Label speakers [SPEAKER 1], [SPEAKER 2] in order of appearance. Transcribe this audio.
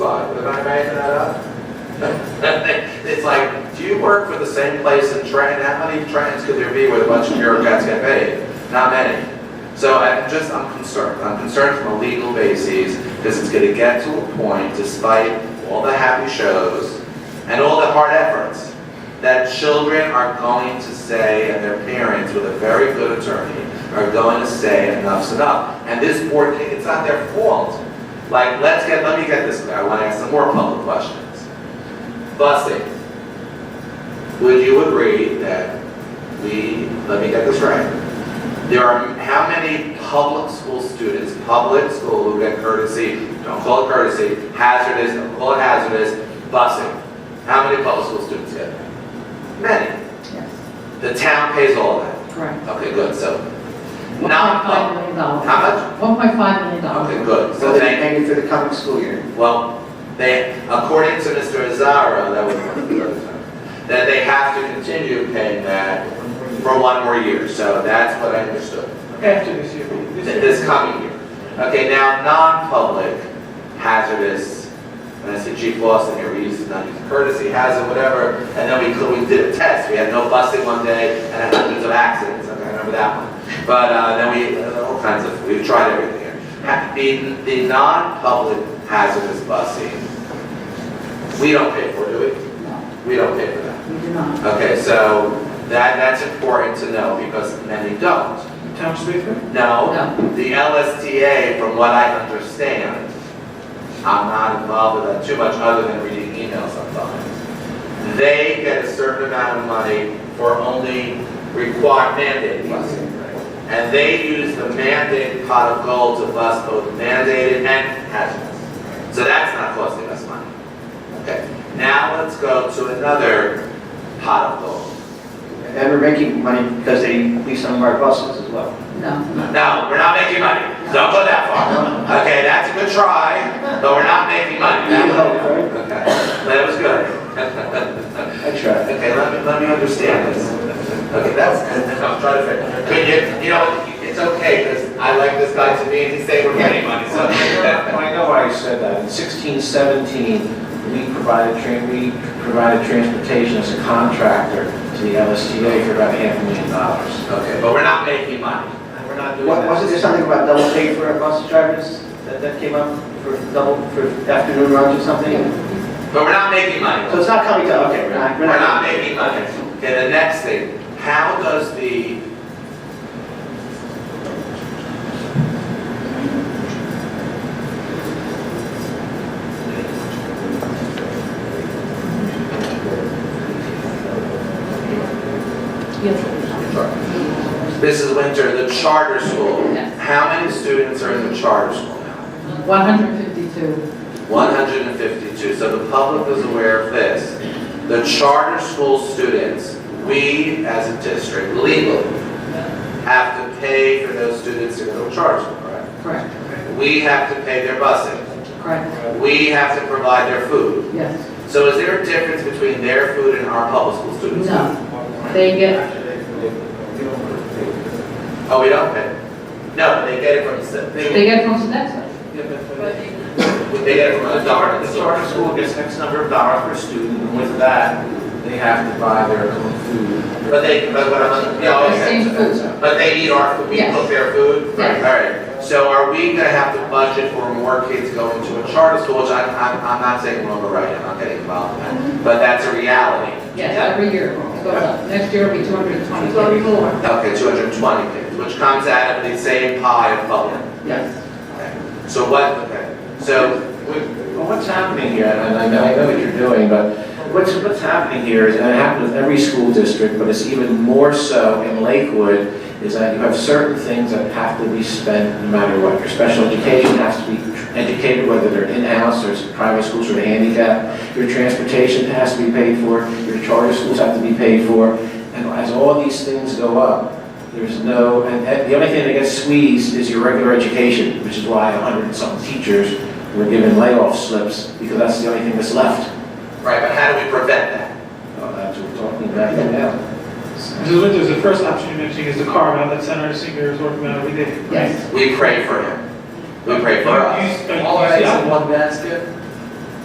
[SPEAKER 1] Am I making that up? It's like, do you work for the same place in Trenton? How many Trentons could there be with a bunch of bureaucrats get paid? Not many. So I'm just, I'm concerned. I'm concerned from a legal basis because it's going to get to a point, despite all the happy shows and all the hard efforts, that children are going to say, and their parents with a very good attorney, are going to say enough's enough. And this board, it's not their fault. Like, let's get, let me get this clear. I want to ask some more public questions. Busing. Would you agree that we, let me get this right. There are, how many public school students, public school who get courtesy, don't call it courtesy, hazardous, don't call it hazardous, busing? How many public school students get that? Many.
[SPEAKER 2] Yes,
[SPEAKER 1] The town pays all that.
[SPEAKER 2] correct.
[SPEAKER 1] Okay, good, so. Not,
[SPEAKER 2] $1.5 million. dollars.
[SPEAKER 1] how much?
[SPEAKER 2] $1.5 million.
[SPEAKER 1] Okay,
[SPEAKER 2] dollars.
[SPEAKER 1] good,
[SPEAKER 3] So
[SPEAKER 1] so
[SPEAKER 3] they're
[SPEAKER 1] thank,
[SPEAKER 3] paying for the coming school year.
[SPEAKER 1] well, they, according to Mr. Azara, that was one of the other times, that they have to continue paying that for one more year, so that's what I understood.
[SPEAKER 4] After this year.
[SPEAKER 1] Th- This coming year. Okay, now, non-public hazardous, and I see Chief Lawson here, we used to not use courtesy hazard, whatever, and then we, could- we did a test, we had no busting one day, and had hundreds of accidents, okay, I remember that one. But, uh, then we, uh, all kinds of, we've tried everything here. Ha- The, the non-public hazardous busing, we don't pay for, it, do we?
[SPEAKER 2] No,
[SPEAKER 1] We don't pay for that.
[SPEAKER 2] we do not.
[SPEAKER 1] Okay, so that, that's important to know because many don't.
[SPEAKER 4] Town speaker?
[SPEAKER 1] No,
[SPEAKER 2] No.
[SPEAKER 1] the LSTA, from what I understand, I'm not involved with that too much other than reading emails sometimes. They get a certain amount of money for only required mandate busing. And they use the mandated pot of gold to bus both mandated and hazardous. So that's not costing us money. Okay, now let's go to another pot of gold.
[SPEAKER 3] And we're making money because they lease some of our buses as well.
[SPEAKER 2] No,
[SPEAKER 1] No, we're not making money. Don't go that far. Okay, that's a good try, but we're not making money.
[SPEAKER 3] You helped, right?
[SPEAKER 1] Okay, that was good.
[SPEAKER 3] I tried.
[SPEAKER 1] Okay, let me, let me understand this. Okay, that's, I'm trying to figure. Can you, you know, it's okay, because I like this guy to me, and he's saying we're getting money, so.
[SPEAKER 5] I know why you said that. In sixteen seventeen, we provided, tra- we provided transportation as a contractor to the LSTA for about half a million dollars.
[SPEAKER 1] Okay, but we're not making money.
[SPEAKER 5] And we're not doing
[SPEAKER 3] Wa- Wasn't there
[SPEAKER 5] that.
[SPEAKER 3] something about double pay for our bus drivers that, that came up for double, for afternoon runs or something?
[SPEAKER 1] But we're not making money.
[SPEAKER 3] So it's not coming to, okay, we're not.
[SPEAKER 1] We're not making money. Okay, the next thing, how does the... This is winter, the charter school.
[SPEAKER 2] Yes.
[SPEAKER 1] How many students are in the charter school now?
[SPEAKER 2] 152.
[SPEAKER 1] 152, so the public is aware of this. The charter school students, we as a district legally have to pay for those students to go to charter school, correct?
[SPEAKER 2] Correct,
[SPEAKER 1] We have to pay their busing.
[SPEAKER 2] correct,
[SPEAKER 1] We have to provide their food.
[SPEAKER 2] yes.
[SPEAKER 1] So is there a difference between their food and our public school students?
[SPEAKER 2] No, they get,
[SPEAKER 1] Oh, we don't pay? No, they get it from the state.
[SPEAKER 2] they get from Sodexo.
[SPEAKER 5] Yeah, but- but-
[SPEAKER 1] They get it from the
[SPEAKER 5] The charter,
[SPEAKER 1] government.
[SPEAKER 5] the charter school gets X number of dollars per student, and with that, they have to buy their own food.
[SPEAKER 1] But they, but what I'm, yeah,
[SPEAKER 2] The
[SPEAKER 1] Oh, okay.
[SPEAKER 2] same food.
[SPEAKER 1] But they eat our, food. we
[SPEAKER 2] Yes.
[SPEAKER 1] cook their food?
[SPEAKER 2] Yes.
[SPEAKER 1] All right, so are we gonna have to budget for more kids going to a charter school, which I'm, I'm, I'm not saying we're overriding, I'm not getting involved in
[SPEAKER 2] Mm-hmm.
[SPEAKER 1] that, but that's a reality.
[SPEAKER 2] Yes, every year. It goes up. Next year will be 220. more.
[SPEAKER 1] Okay, two hundred and twenty kids, which comes out of the same pie of public.
[SPEAKER 2] Yes,
[SPEAKER 1] So what, okay, so,
[SPEAKER 5] Well, what's happening here, and I know, I know what you're doing, but what's, what's happening here is, and it happens with every school district, but it's even more so in Lakewood, is that you have certain things that have to be spent no matter what. Your special education has to be educated, whether they're in-house or it's private schools or handicap. Your transportation has to be paid for, your charter schools have to be paid for. And as all these things go up, there's no, and and the only thing that gets squeezed is your regular education, which is why a hundred and some teachers we're given layoff slips because that's the only thing that's left.
[SPEAKER 1] right, but how do we prevent that?
[SPEAKER 5] Well, That's what we're talking about here now.
[SPEAKER 4] Mrs. Winters, the first option you mentioned is the carve out that Senator Singer is working on every day.
[SPEAKER 2] yes.
[SPEAKER 1] We pray for him, we pray for
[SPEAKER 4] But
[SPEAKER 1] us.
[SPEAKER 4] you- but you see, I'm-
[SPEAKER 3] one basket?